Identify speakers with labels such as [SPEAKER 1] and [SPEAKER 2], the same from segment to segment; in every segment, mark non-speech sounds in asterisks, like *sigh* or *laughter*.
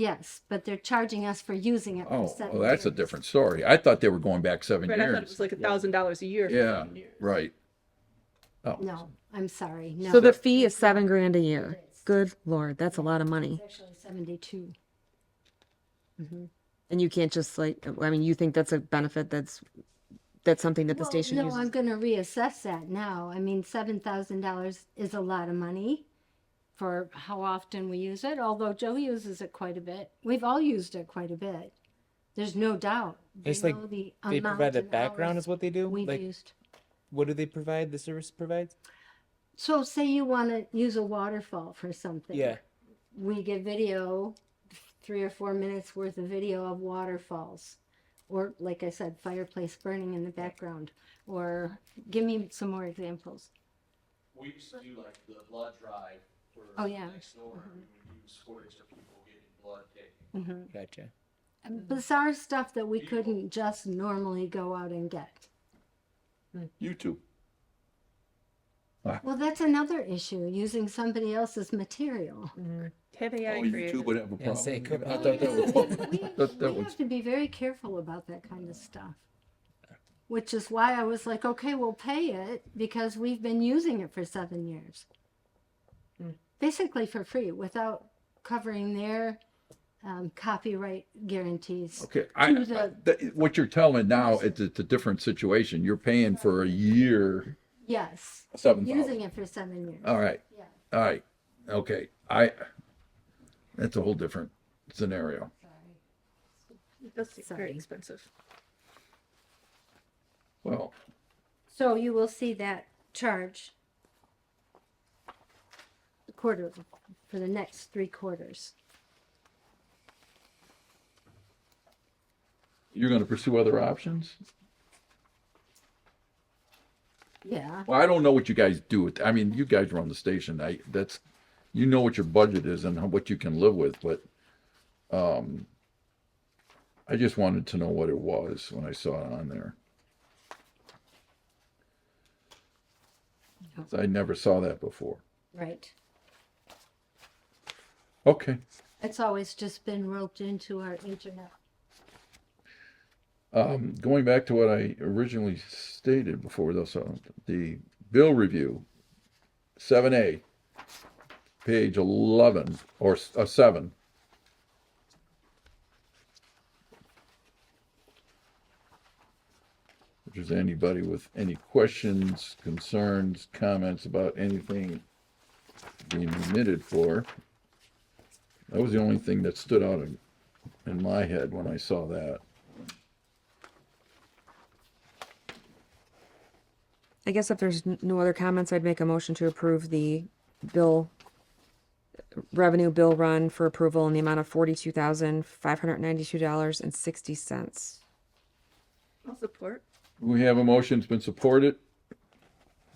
[SPEAKER 1] Yes, but they're charging us for using it for
[SPEAKER 2] Oh,
[SPEAKER 1] seven
[SPEAKER 2] well, that's a
[SPEAKER 1] years.
[SPEAKER 2] different story. I thought they were going back seven
[SPEAKER 3] Right, I thought it was
[SPEAKER 2] years.
[SPEAKER 3] like a thousand dollars a year. for
[SPEAKER 2] Yeah,
[SPEAKER 3] ten years.
[SPEAKER 2] right. Oh,
[SPEAKER 1] No, I'm sorry, no.
[SPEAKER 4] So the fee is seven grand a year. Good lord, that's a lot of money.
[SPEAKER 1] It's actually seventy-two.
[SPEAKER 4] And you can't just like, I mean, you think that's a benefit that's, that's something that the
[SPEAKER 1] Well,
[SPEAKER 4] station
[SPEAKER 1] No, I'm
[SPEAKER 4] uses.
[SPEAKER 1] gonna reassess that now. I mean, seven thousand dollars is a lot of money for how often we use it, although Joe uses it quite a bit. We've all used it quite a bit. There's no doubt. They
[SPEAKER 5] It's like
[SPEAKER 1] know the
[SPEAKER 5] they
[SPEAKER 1] amount
[SPEAKER 5] provide the
[SPEAKER 1] and
[SPEAKER 5] background
[SPEAKER 1] hours
[SPEAKER 5] is what they do.
[SPEAKER 1] We've
[SPEAKER 5] Like
[SPEAKER 1] used.
[SPEAKER 5] what do they provide? The service provides.
[SPEAKER 1] So say you wanna use a waterfall for something.
[SPEAKER 5] Yeah.
[SPEAKER 1] we get video, three or four minutes worth of video of waterfalls, or like I said, fireplace burning in the background, or give me some more examples.
[SPEAKER 6] We used to do like the blood drive for
[SPEAKER 1] Oh, yeah.
[SPEAKER 6] next door. We would use footage of people getting blood taken.
[SPEAKER 5] Gotcha.
[SPEAKER 1] Bizarre stuff that we couldn't just normally go out and get.
[SPEAKER 2] YouTube.
[SPEAKER 1] Well, that's another issue, using somody else's material.
[SPEAKER 3] Have
[SPEAKER 2] Oh,
[SPEAKER 3] AI
[SPEAKER 2] YouTube
[SPEAKER 3] created.
[SPEAKER 2] would have a
[SPEAKER 5] Yeah, say it could
[SPEAKER 2] problem. I thought that
[SPEAKER 1] *laughs*
[SPEAKER 2] was,
[SPEAKER 1] We,
[SPEAKER 2] that, that
[SPEAKER 1] we
[SPEAKER 2] was,
[SPEAKER 1] have to be very careful about that kind of stuff. Which is why I was like, okay, we'll pay it because we've been using it for seven years. Basically for free without covering their um, copyright guarantees.
[SPEAKER 2] okay, I, I-
[SPEAKER 1] To the-
[SPEAKER 2] that- what you're telling now, it's, it's a different situation. You're paying for a year,
[SPEAKER 1] Yes,
[SPEAKER 2] seven thousand.
[SPEAKER 1] using it for seven years.
[SPEAKER 2] All right,
[SPEAKER 1] Yeah.
[SPEAKER 2] all right, okay, I, that's a whole different scenario.
[SPEAKER 3] That's very
[SPEAKER 1] Sorry.
[SPEAKER 3] expensive.
[SPEAKER 2] Well,
[SPEAKER 1] So you will see that charge quarter, for the next three quarters.
[SPEAKER 2] you're gonna pursue other options?
[SPEAKER 1] Yeah.
[SPEAKER 2] Well, I don't know what you guys do with, I mean, you guys run the station, I, that's, you know what your budget is and how- what you can live with, but, um, I just wanted to know what it was when I saw it on there. 'Cause I never saw that before.
[SPEAKER 1] Right.
[SPEAKER 2] Okay,
[SPEAKER 1] It's always just been roped into our internet.
[SPEAKER 2] um, going back to what I originally stated before, though, so the bill review, seven A, page eleven, or, s- uh, seven. If there's anybody with any questions, concerns, comments about anything being omitted for, that was the only thing that stood out in, in my head when I saw that.
[SPEAKER 4] I guess if there's n- no other comments, I'd make a motion to approve the bill, revenue bill run for approval in the amount of forty-two thousand, five hundred ninety-two dollars and sixty cents.
[SPEAKER 3] I'll support.
[SPEAKER 2] We have a motion, it's been supported.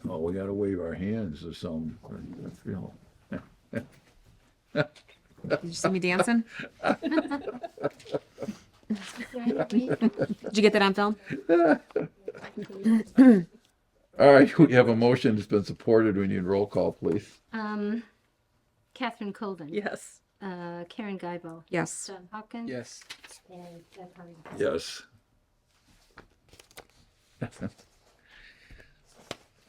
[SPEAKER 2] Oh, we gotta wave our hands or something. I feel-
[SPEAKER 4] Did you see me dancing? *laughs*
[SPEAKER 1] Right?
[SPEAKER 4] Did you get that on film?
[SPEAKER 2] All right, *laughs* we have a motion, it's been supported, we need roll call, please.
[SPEAKER 1] um, Catherine Colvin.
[SPEAKER 3] Yes.
[SPEAKER 1] Uh, Karen Guybo.
[SPEAKER 4] Yes.
[SPEAKER 1] John Hawkins.
[SPEAKER 5] Yes.
[SPEAKER 1] And Deb Hardy.
[SPEAKER 2] Yes. *laughs*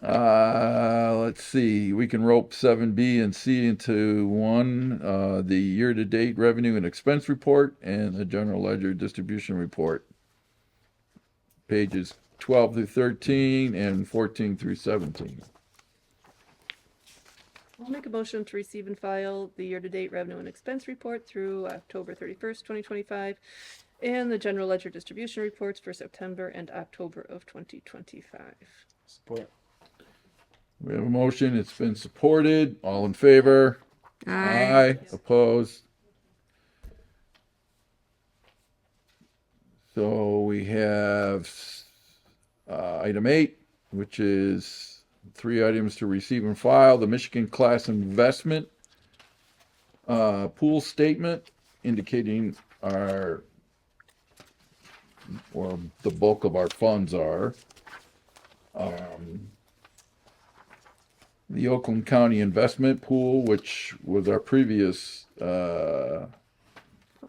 [SPEAKER 2] Uh, let's see, we can rope seven B and C into one, uh, the year-to-date revenue and expense report and the general ledger distribution report. Pages twelve through thirteen and fourteen through seventeen.
[SPEAKER 3] I'll make a motion to receive and file the year-to-date revenue and expense report through October thirty-first, twenty twenty-five, and the general ledger distribution reports for September and October of twenty twenty-five.
[SPEAKER 5] Support.
[SPEAKER 2] We have a motion, it's been supported, all in favor? Aye,
[SPEAKER 4] Aye.
[SPEAKER 2] opposed? So we have uh, item eight, which is three items to receive and file, the Michigan Class Investment uh, Pool Statement indicating our, or the bulk of our funds are. Um, The Oakland County Investment Pool, which was our previous uh,